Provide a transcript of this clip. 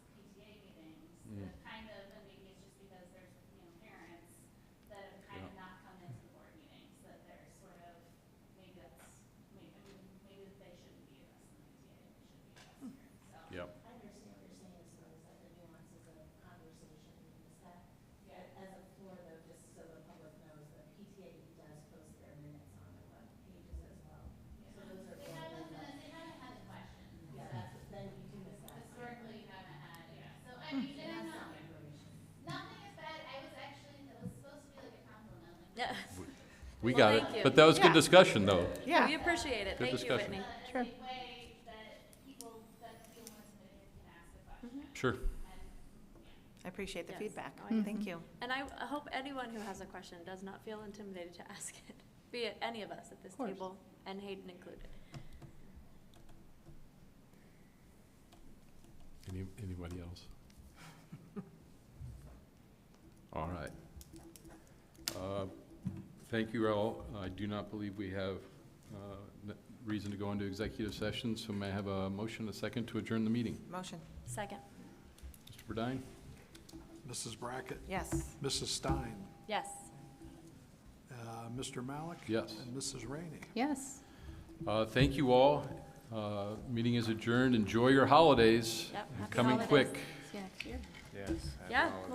We Well, got it. thank you. But that was good Yeah. discussion, though. Yeah. We appreciate it. Good Thank you, discussion. Whitney. Sure. way that people that feel more submitted can ask the question. Sure. I appreciate the Yes. feedback. Oh, Thank you. And I I hope anyone who has a question does not feel intimidated to ask it, be it any of us at this Of course. table, and Hayden included. Any, anybody else? All right. Uh, Thank you all. I do not believe we have uh, n- reason to go into executive session, so may I have a motion, a second, to adjourn the meeting? Motion, Second, Mr. Burdine? Mrs. Brackett, yes. Mrs. Stein, yes. uh, Mr. Malik. Yes. And Mrs. Rainey. Yes. Uh, Thank you all. Uh, Meeting is adjourned. Enjoy your holidays. Yep, happy Coming holidays. quick. See you next year. Yeah,